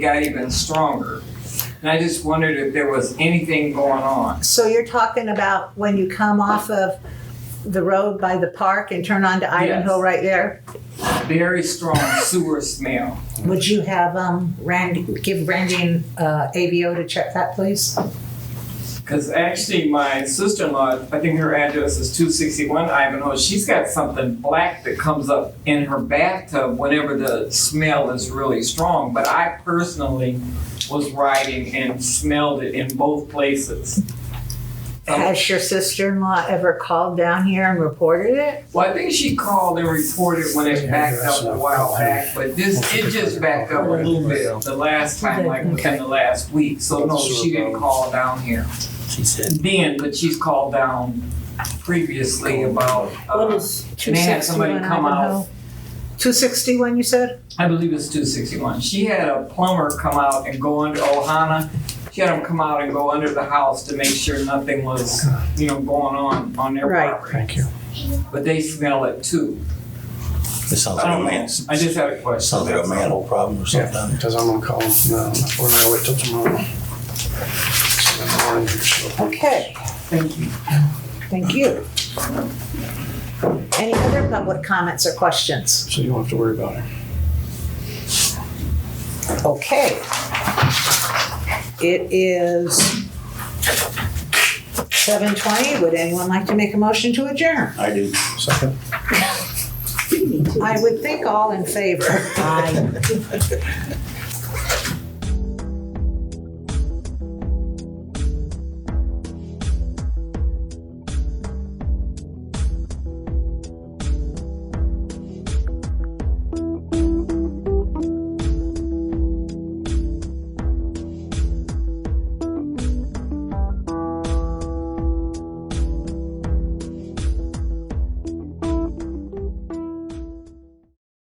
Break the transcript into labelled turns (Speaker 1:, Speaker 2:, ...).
Speaker 1: got even stronger. And I just wondered if there was anything going on.
Speaker 2: So you're talking about when you come off of the road by the park and turn onto Ivanhoe
Speaker 1: Yes.
Speaker 2: right there?
Speaker 1: Very strong sewer smell.
Speaker 2: Would you have um, Randy, give Randy and uh, AVO to check that, please?
Speaker 1: Um, Because actually, my sister in law, I think her address is 261 Ivanhoe, she's got something black that comes up in her bathtub whenever the smell is really strong. But I personally was riding and smelled it in both places. Um,
Speaker 2: Has your sister-in-law ever called down here and reported it?
Speaker 1: Well, I think she called and reported when it backed up a while back, but this, it just backed up a little bit the last time, like within the last week. So no, she didn't call down here
Speaker 3: She said,
Speaker 1: then, but she's called down previously about,
Speaker 2: What
Speaker 1: uh,
Speaker 2: is
Speaker 1: and they had
Speaker 2: 261
Speaker 1: somebody come
Speaker 2: Ivanhoe?
Speaker 1: out.
Speaker 2: 261, you said?
Speaker 1: I believe it's two sixty-one. She had a plumber come out and go under Ohana. She had him come out and go under the house to make sure nothing was, you know, going on on their
Speaker 2: Right.
Speaker 1: property.
Speaker 3: thank you.
Speaker 1: But they smell it too.
Speaker 3: This sounds
Speaker 1: I
Speaker 3: like a
Speaker 1: don't
Speaker 3: man,
Speaker 1: know. I just had a question.
Speaker 3: sounds like a manhole problem or
Speaker 4: Yeah,
Speaker 3: something.
Speaker 4: because I'm gonna call them now, or I'll wait till tomorrow. So in the morning, she'll-
Speaker 2: Okay,
Speaker 1: Thank you.
Speaker 2: thank you. Any other public comments or questions?
Speaker 4: So you don't have to worry about it.
Speaker 2: Okay. It is seven twenty. Would anyone like to make a motion to adjourn?
Speaker 3: I do.
Speaker 4: Second?
Speaker 2: I would think all in favor.